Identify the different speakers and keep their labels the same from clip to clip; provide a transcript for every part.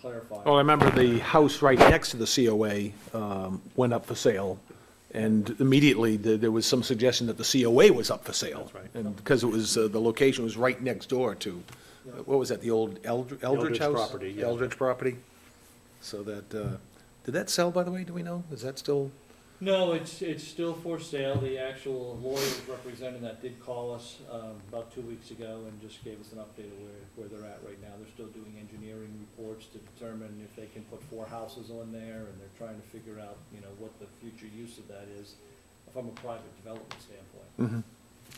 Speaker 1: clarify.
Speaker 2: Well, Oh, I remember the house right next to the COA um, went up for sale, and immediately th- there was some suggestion that the COA was up for sale. That's right. And because it was, uh, the location was right next door to, what was that, the old Eldr- Eldridge
Speaker 3: Eldridge
Speaker 2: House?
Speaker 3: property, yeah.
Speaker 2: Eldridge property. So that, uh, did that sell, by the way, do we know? Is that still?
Speaker 1: No, it's, it's still for sale. The actual lawyers representing that did call us um, about two weeks ago and just gave us an update of where, where they're at right now. They're still doing engineering reports to determine if they can put four houses on there, and they're trying to figure out, you know, what the future use of that is from a private development standpoint.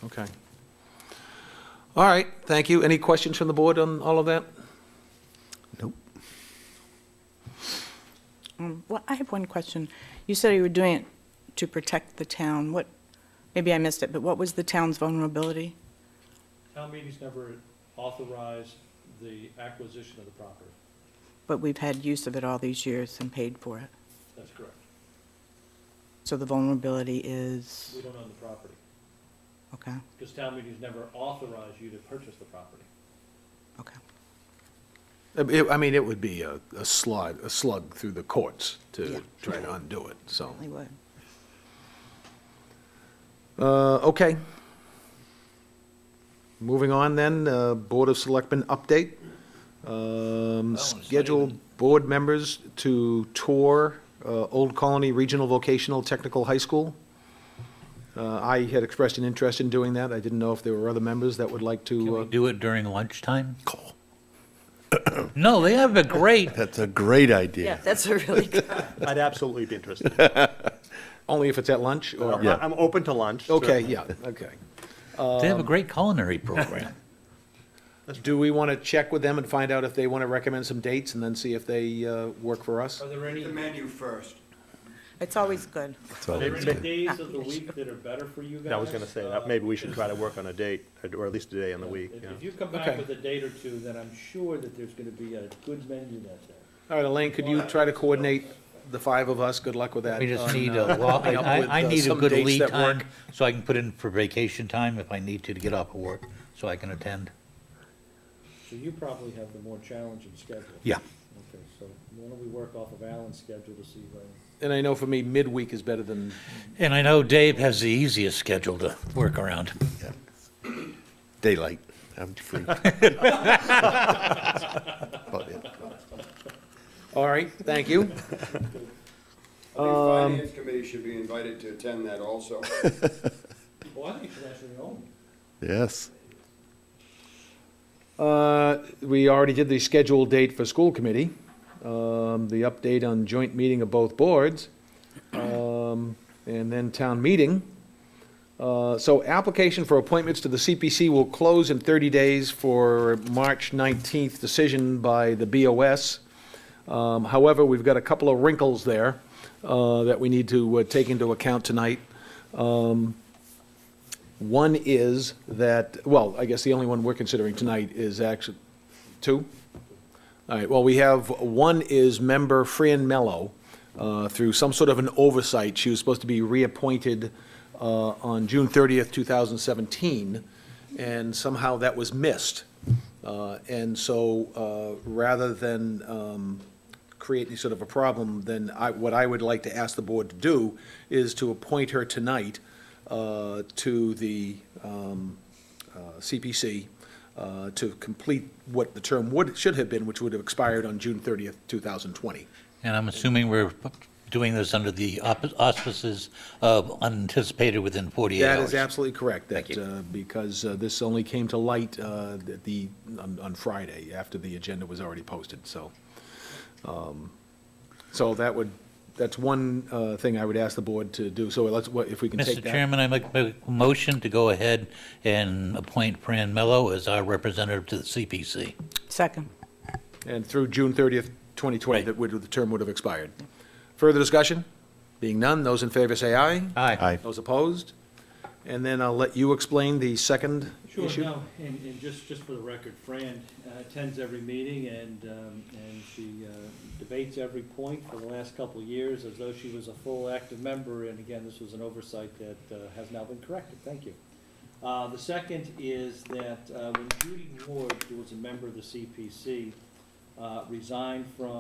Speaker 2: Okay. All right, thank you. Any questions from the board on all of that? Nope.
Speaker 4: Um, Well, I have one question. You said you were doing it to protect the town. What, maybe I missed it, but what was the town's vulnerability?
Speaker 1: Town meetings never authorized the acquisition of the property.
Speaker 4: But we've had use of it all these years and paid for it.
Speaker 1: That's correct.
Speaker 4: So the vulnerability
Speaker 1: We
Speaker 4: is,
Speaker 1: don't own the property,
Speaker 4: okay,
Speaker 1: because town meetings never authorized you to purchase the property.
Speaker 4: okay.
Speaker 2: I mean, I mean, it would be a a slog, a slug through the courts
Speaker 4: Yeah.
Speaker 2: to try to undo it, so.
Speaker 4: Certainly would.
Speaker 2: Uh, Okay. Moving on then, uh, Board of Selectmen update. Um,
Speaker 5: not
Speaker 2: Schedule
Speaker 5: even-
Speaker 2: board members to tour uh, Old Colony Regional Vocational Technical High School. Uh, I had expressed an interest in doing that. I didn't know if there were other members that would like
Speaker 5: Can
Speaker 2: to.
Speaker 5: we
Speaker 2: uh,
Speaker 5: do it during lunchtime? No, they have a great,
Speaker 6: That's a great idea.
Speaker 4: that's a really good.
Speaker 3: I'd absolutely be interested.
Speaker 2: Only if it's at lunch or?
Speaker 3: I- I'm open to lunch.
Speaker 2: Okay,
Speaker 3: certainly.
Speaker 2: yeah, okay.
Speaker 5: they
Speaker 2: Um,
Speaker 5: have a great culinary program.
Speaker 2: Do we want to check with them and find out if they want to recommend some dates and then see if they uh, work for us?
Speaker 1: Are there any?
Speaker 7: The menu first.
Speaker 4: It's always good.
Speaker 6: That's all
Speaker 1: Are there
Speaker 6: it's
Speaker 1: any
Speaker 6: good.
Speaker 1: days of the week that are better for you guys? uh,
Speaker 3: I was going to say, that maybe we should try to work on a date, or at least a day in the week,
Speaker 1: If
Speaker 3: yeah.
Speaker 1: if you come
Speaker 2: Okay.
Speaker 1: back with a date or two, then I'm sure that there's going to be a good menu that day.
Speaker 2: All right, Elaine, could you try to coordinate the five of us? Good luck with that.
Speaker 5: We just
Speaker 2: on,
Speaker 5: need
Speaker 2: uh,
Speaker 5: a law, I,
Speaker 2: coming up with,
Speaker 5: I- I
Speaker 2: uh,
Speaker 5: need a
Speaker 2: some
Speaker 5: good
Speaker 2: dates
Speaker 5: lead
Speaker 2: that work.
Speaker 5: time, so I can put in for vacation time if I need to, to get off of work, so I can attend.
Speaker 1: So you probably have the more challenging schedule.
Speaker 5: Yeah.
Speaker 1: Okay, so why don't we work off of Alan's schedule to see when,
Speaker 2: And I know for me, midweek is better than,
Speaker 5: And I know Dave has the easiest schedule to work around.
Speaker 6: Daylight. I'm free. About it.
Speaker 2: all right, thank you.
Speaker 7: I think Finance Committee should be invited to attend that also.
Speaker 1: oh, I think you should actually own.
Speaker 6: Yes.
Speaker 2: Uh, We already did the scheduled date for school committee, um, the update on joint meeting of both boards, um, and then town meeting. Uh, So application for appointments to the CPC will close in 30 days for March 19th decision by the BOS. Um, However, we've got a couple of wrinkles there uh, that we need to uh, take into account tonight. One is that, well, I guess the only one we're considering tonight is actually, two? All right, well, we have, one is member Fran Mello, uh, through some sort of an oversight. She was supposed to be reappointed uh, on June 30th, 2017, and somehow that was missed. Uh, And so, uh, rather than um, create any sort of a problem, then I, what I would like to ask the board to do is to appoint her tonight uh, to the um, uh, CPC uh, to complete what the term would, should have been, which would have expired on June 30th, 2020.
Speaker 5: And I'm assuming we're doing this under the op- auspices of unanticipated within 48 hours.
Speaker 2: That is absolutely correct. that,
Speaker 5: Thank you.
Speaker 2: uh, Because uh, this only came to light uh, at the, on on Friday, after the agenda was already posted, so. um, So that would, that's one uh, thing I would ask the board to do. So let's, what- if we can take
Speaker 5: Mr.
Speaker 2: that.
Speaker 5: Chairman, I make a motion to go ahead and appoint Fran Mello as our representative to the CPC.
Speaker 4: Second.
Speaker 2: And through June 30th, 2020,
Speaker 5: Right.
Speaker 2: that would, the term would have expired. Further discussion? Being none, those in favor say aye.
Speaker 5: Aye.
Speaker 6: Aye.
Speaker 2: Those opposed? And then I'll let you explain the second
Speaker 1: Sure,
Speaker 2: issue.
Speaker 1: no, and, and just, just for the record, Fran uh, attends every meeting and, um, and she uh, debates every point for the last couple of years as though she was a full active member, and again, this was an oversight that uh, has now been corrected, thank you. Uh, the second is that uh, when Judy Ward, who was a member of the CPC, uh, resigned from